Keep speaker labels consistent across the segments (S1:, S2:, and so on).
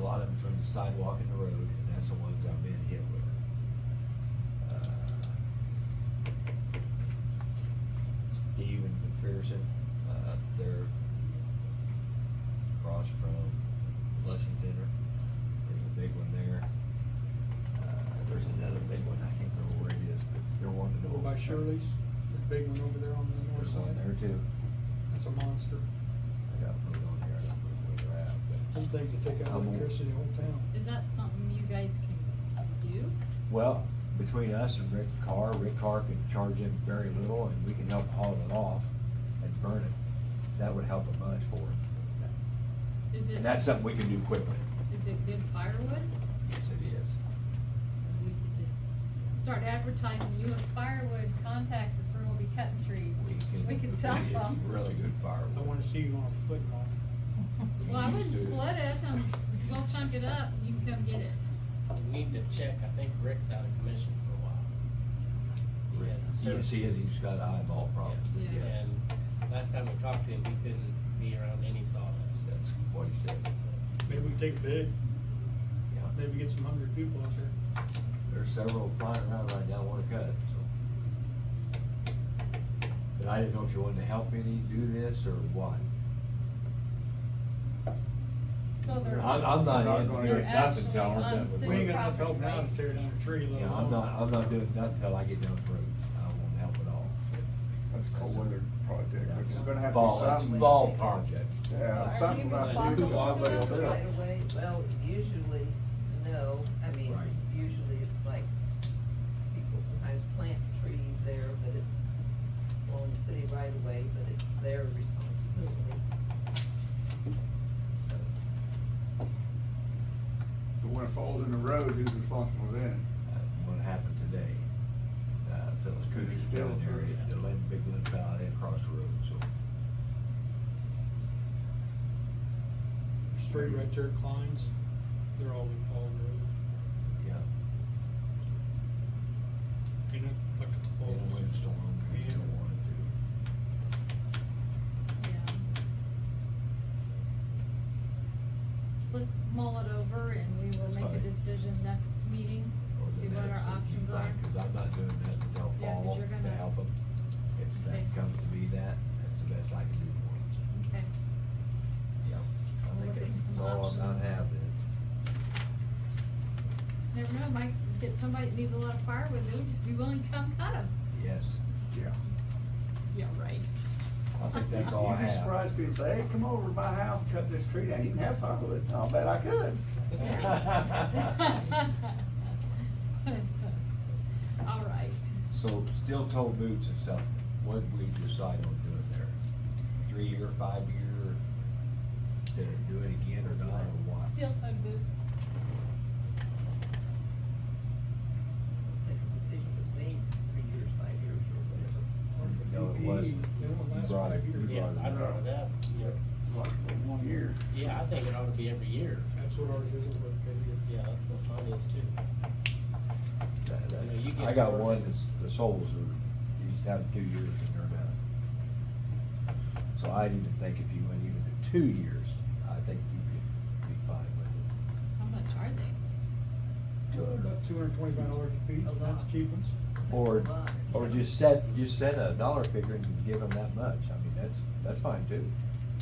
S1: lot of them from the sidewalk and the road, and that's the ones I've been hit with. Uh, Steve and McPherson, uh, they're across from Blessing Center. There's a big one there. Uh, there's another big one, I can't remember where it is, but they're one to know.
S2: Over by Shirley's, the big one over there on the north
S1: There's one
S2: side.
S1: there too.
S2: That's a monster.
S1: I got put on here, I don't remember where they're at, but.
S2: Some things that take out
S1: I'm-
S2: electricity in the whole town.
S3: Is that something you guys can do?
S1: Well, between us and Rick Carr, Rick Carr can charge him very little and we can help haul it off and burn it. That would help a bunch for it.
S3: Is it?
S1: And that's something we can do quickly.
S3: Is it good firewood?
S1: Yes, it is.
S3: We could just start advertising, you have firewood, contact us, we're gonna be cutting trees. We can sell
S1: it is
S3: some.
S1: Really good
S2: I
S1: firewood.
S2: wanna see you on a foot long.
S3: Well, I
S1: You
S3: wouldn't
S1: do.
S3: split it, um, we'll chunk it up, you can come get it.
S4: We need to check, I think Rick's out of commission for a while. He had
S1: You can
S4: service-
S1: see it, he's got eyeball problems.
S3: Yeah.
S1: Yeah,
S4: And last time we talked to him, he couldn't be around any sawdust.
S1: That's what he said.
S2: Maybe we can take a bid,
S1: Yeah.
S2: maybe get some hungry people out there.
S1: There's several flying around right now, wanna cut it, so. But I didn't know if you wanted to help any do this or what.
S3: So they're.
S1: I'm, I'm not in,
S3: gonna
S1: doing
S3: get
S1: nothing
S3: actually
S1: till
S3: on
S1: I'm done with
S3: city
S2: We ain't
S1: work.
S2: got enough help
S3: property,
S2: now to
S3: right?
S2: tear down a tree, let
S1: Yeah, I'm
S2: alone-
S1: not, I'm not doing nothing till I get done with roads. I won't help at all.
S5: That's a cold weather project, which is gonna have to
S1: Fall,
S5: be
S1: it's
S5: something.
S1: fall project.
S3: So
S5: Yeah,
S3: are
S5: something
S3: you
S5: about to do,
S3: responsible
S5: God,
S3: for that?
S5: they'll do
S6: Right
S5: it.
S6: away, well, usually, no, I mean,
S1: Right.
S6: usually it's like, people sometimes plant trees there, but it's, well, in the city right away, but it's their responsibility. So,
S5: But when it falls in the road, who's responsible then?
S1: Uh, What happened today, uh, Phyllis Coody's
S5: It's still
S1: down there,
S5: through,
S1: at
S4: yeah.
S1: the Lynn, big Lynn Valley and across the road, so.
S2: Street right there, Klein's, they're all in Paul Road,
S1: Yeah,
S2: you know, electrical
S1: in a
S2: poles.
S1: windstorm, you
S2: Yeah.
S1: don't want to.
S3: Yeah. Let's mull it over and we will
S1: That's
S3: make a
S1: fine.
S3: decision next meeting,
S1: or the
S3: see what our
S1: next that you
S3: options
S1: find,
S3: are.
S1: Cause I'm not doing nothing till
S3: Yeah, 'cause
S1: fall
S3: you're
S1: to
S3: gonna-
S1: help them. If
S3: Okay.
S1: that comes to be that, that's the best I can do for them.
S3: Okay.
S1: Yeah. I
S3: We'll
S1: think
S3: look at
S1: that's
S3: some
S1: all I'm not
S3: options.
S1: having.
S3: Never know, might get somebody that needs a lot of firewood, they would just be willing to come cut them.
S1: Yes,
S5: Yeah.
S3: Yeah, right.
S1: I think that's all I
S5: You'd be
S1: have.
S5: surprised people say, hey, come over to my house, cut this tree down, you can have firewood. I'll bet I could.
S3: All right.
S1: So steel toe boots and stuff, what did we decide on doing there? Three year, five year, to do it again or not, or what?
S3: toed boots.
S6: I think the decision was made three years, five years or whatever.
S1: No, it wasn't.
S2: They don't
S1: You
S2: last
S1: brought it,
S2: five years.
S1: you
S4: Yeah,
S1: brought
S4: I
S1: it
S4: brought
S1: up.
S4: it up, you know,
S5: Like, one year.
S4: yeah, I think it ought to be every year.
S2: That's what ours is, over there.
S4: Yeah, that's what mine is too.
S1: That- that-
S4: No, you get
S1: I got
S4: more.
S1: one, that's the soles are, you just have two years and they're done. So I didn't even think if you went even to two years, I think you could be fine with it.
S3: How much are they?
S2: About two hundred and twenty-five dollars a piece,
S6: A
S2: and
S6: lot.
S2: that's cheap ones.
S1: Or,
S6: Lot.
S1: or just set, just set a dollar figure and give them that much, I mean, that's, that's fine too,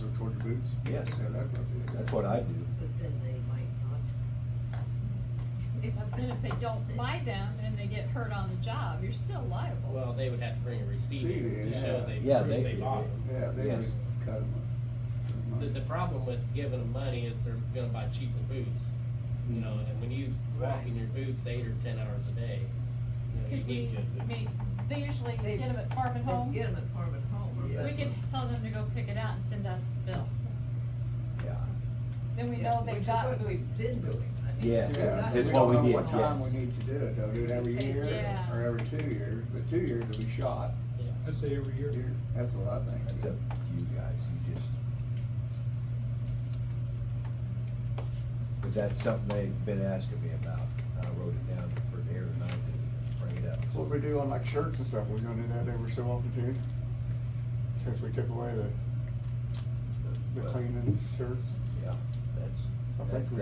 S5: Go toward the boots?
S1: Yes.
S5: Yeah, that's what
S1: that's what I do.
S6: But then they might not.
S3: But then if they don't buy them and they get hurt on the job, you're still liable.
S4: Well, they would have to bring a receipt in
S5: Receipt,
S4: to show
S5: yeah.
S4: they,
S1: Yeah, they-
S4: proved they bought them.
S5: Yeah, they
S1: Yes.
S5: just cut
S4: The, the
S5: them.
S4: problem with giving them money is they're gonna buy cheaper boots, you know,
S5: Mm-hmm.
S4: and when you walk in your boots eight or ten hours a day, you know, you
S3: Could we
S4: need good boots.
S3: make, they usually
S6: They-
S3: get them at Farm and Home.
S6: Get them at Farm and Home,
S5: Yeah.
S6: or
S3: We
S6: that's
S3: could tell them to go pick it out and send us a bill.
S1: Yeah,
S3: Then we
S6: Yeah,
S3: know they got
S6: Which is
S3: boots.
S6: what we've been doing. I mean,
S1: Yes,
S6: we've
S5: Yeah,
S6: got-
S1: that's
S5: we
S1: what
S5: don't
S1: we
S5: know
S1: did,
S5: What time
S1: yes.
S5: we need to do it, though, do it every year
S3: Yeah.
S5: or- or every two years, but two years will be shot.
S4: Yeah.
S2: I'd say every year.
S5: Here, That's what I think.
S1: that's up to you guys, you just. But that's something they've been asking me about, I wrote it down for the air tonight to bring it up.
S5: What we do on like shirts and stuff, we're gonna do that every so often too. Since we took away the, the
S1: Well,
S5: cleaning shirts.
S1: Yeah, that's.
S5: I think we